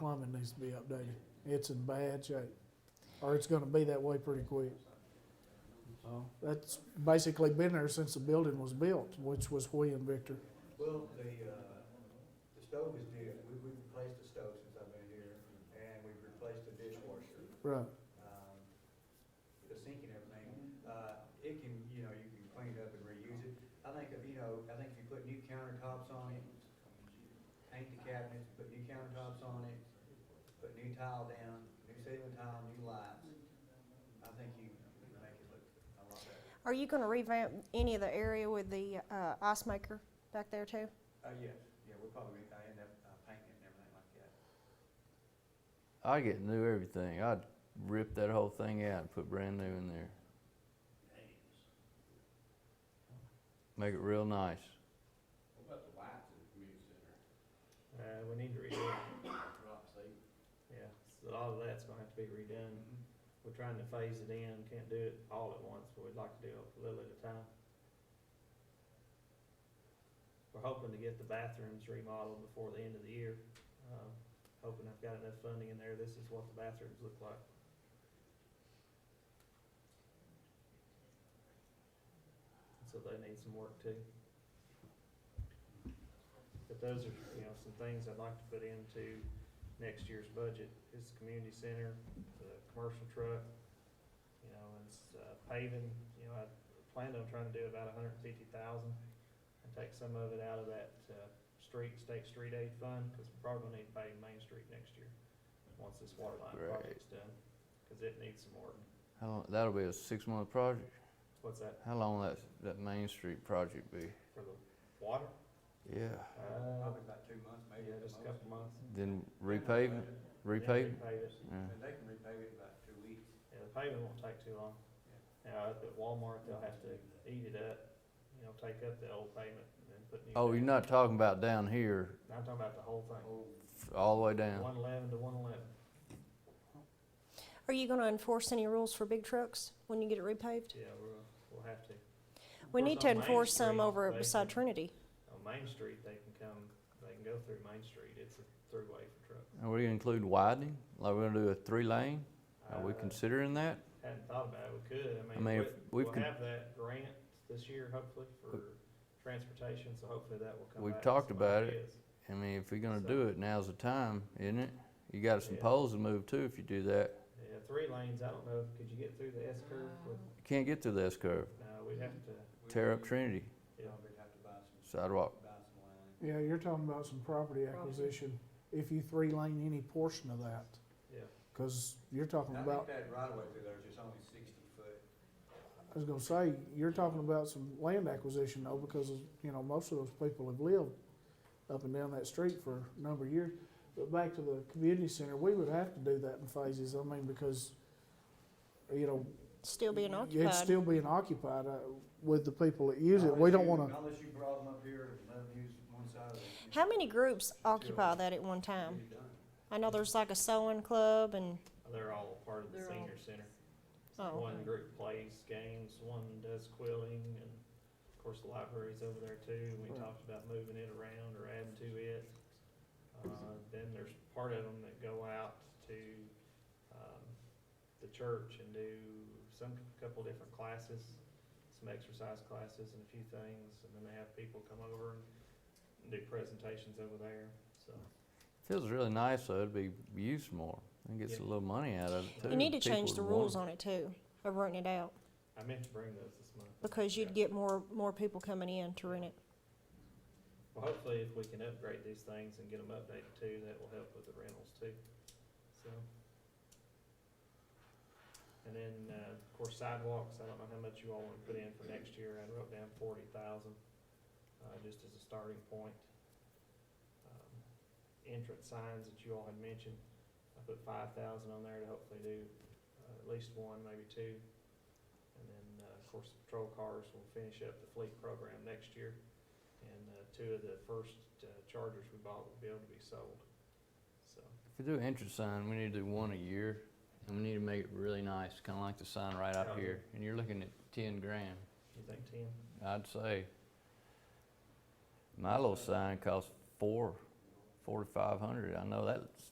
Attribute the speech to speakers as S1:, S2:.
S1: plumbing needs to be updated. It's in bad shape, or it's gonna be that way pretty quick.
S2: Oh,
S1: That's basically been there since the building was built, which was when, Victor?
S3: Well, the, uh, the stove is new, we, we've replaced the stove since I've been here, and we've replaced the dishwasher,
S1: Right,
S3: um, the sink and everything. Uh, it can, you know, you can clean it up and reuse it. I think if, you know, I think if you put new countertops on it, paint the cabinets, put new countertops on it, put new tile down, new ceiling tile, new lights, I think you can make it look a lot better.
S4: Are you gonna revamp any of the area with the uh, ice maker back there too?
S3: Uh, yes, yeah, we'll probably, I end up uh, painting it and everything like that.
S2: I get new everything. I'd rip that whole thing out and put brand new in there. Make it real nice.
S5: Uh, we need to redo it. Yeah, so all of that's gonna have to be redone. We're trying to phase it in, can't do it all at once, but we'd like to do it a little at a time. We're hoping to get the bathrooms remodeled before the end of the year. Um, hoping I've got enough funding in there, this is what the bathrooms look like. So they need some work too. But those are, you know, some things I'd like to put into next year's budget, is the community center, the commercial truck, you know, and s- uh, paving, you know, I planned on trying to do about a hundred and fifty thousand, and take some of it out of that, uh, street, state street aid fund, because we're probably gonna need to pave Main Street next year, once this water line
S2: Right.
S5: project's done, because it needs some work.
S2: How long, that'll be a six month project.
S5: What's that
S2: How long will that that Main Street project be?
S5: for the water?
S2: Yeah.
S5: Uh,
S3: Probably about two months, maybe.
S5: yeah,
S3: at the
S5: just a
S3: most.
S5: couple months.
S2: Then repave it.
S5: Yeah,
S2: Repave. it?
S5: Repave it.
S2: Yeah.
S3: And they can repave it in about two weeks.
S5: Yeah, the paving won't take too long. Now, at Walmart, they'll have to eat it up, you know, take up the old pavement and then put new.
S2: Oh, you're
S5: pavement.
S2: not talking about down here,
S5: I'm talking about the whole thing,
S3: Oh,
S2: f- all the way down.
S5: one eleven to one eleven.
S4: Are you gonna enforce any rules for big trucks when you get it repaved?
S5: Yeah, we'll, we'll have to.
S4: We
S5: Of course,
S4: need to
S5: on Main
S4: enforce some
S5: Street,
S4: over
S5: they
S4: beside
S5: can-
S4: Trinity.
S5: On Main Street, they can come, they can go through Main Street. It's a throughway for trucks.
S2: And we're gonna include widening, like we're gonna do a three lane. Are we
S5: Uh,
S2: considering that?
S5: Hadn't thought about it, we could, I
S2: I mean,
S5: mean,
S2: if
S5: we-
S2: we've
S5: we'll
S2: con-
S5: have that grant this year hopefully for transportation, so hopefully that will come
S2: We've
S5: back. with
S2: talked
S5: some
S2: about it.
S5: ideas.
S2: I mean, if you're gonna
S5: So-
S2: do it, now's the time, isn't it? You got some
S5: Yeah.
S2: poles to move too if you do that.
S5: Yeah, three lanes, I don't know, could you get through the S curve with,
S2: You can't get through the S curve.
S5: no, we'd have to,
S3: Ah. we-
S2: Tear up Trinity
S3: You
S5: yeah.
S3: know, we'd have to buy some,
S2: sidewalk.
S3: buy some land.
S1: yeah, you're talking about some property acquisition, if you three lane any portion of that,
S5: Yeah,
S1: cause you're talking
S3: I
S1: about
S3: think that right away through there is just only sixty foot.
S1: I was gonna say, you're talking about some land acquisition though, because, you know, most of those people have lived up and down that street for a number of years. But back to the community center, we would have to do that in phases, I mean, because, you know,
S4: Still being
S1: it's
S4: occupied.
S1: still being occupied uh, with the people that use it. We
S3: Unless
S1: don't
S3: you-
S1: wanna,
S3: Unless you brought them up here and let them use one side of it. you
S4: How um, many groups occupy
S3: Sure.
S4: that at one
S3: can
S4: time?
S3: get it done.
S4: I know there's like a sewing club and,
S5: they're all part of the
S6: They're all-
S5: senior center.
S4: oh,
S5: One group plays games, one does quilling, and of course, the library's over there too, and we
S1: Right.
S5: talked about moving it around or adding to it. Uh, then there's part of them that go out to, um, the church and do some, couple different classes, some exercise classes and a few things, and then they have people come over and do presentations over there, so.
S2: Feels really nice though, it'd be used more. And gets a
S5: Yeah.
S2: little money out of it too.
S4: you need to
S2: People
S4: change
S2: would
S4: the
S2: want
S4: rules
S2: it.
S4: on it too, of renting it out,
S5: I meant to bring those this month.
S4: because you'd get more, more people coming in to rent it.
S5: Well, hopefully if we can upgrade these things and get them updated too, that will help with the rentals too, so. And then, uh, of course sidewalks, I don't know how much you all wanna put in for next year, I wrote down forty thousand, uh, just as a starting point. Um, Entrance signs that you all had mentioned, I put five thousand on there to hopefully do, uh, at least one, maybe two. And then, uh, of course, patrol cars will finish up the fleet program next year. And uh, two of the first uh, Chargers we bought will be able to be sold. So,
S2: If we do entrance sign, we need to do one a year. And we need to make it really nice, kinda like the sign right out
S5: Oh, yeah.
S2: here. And you're looking at ten grand,
S5: you think ten?
S2: I'd say. My little sign costs four, four to five hundred. I know that's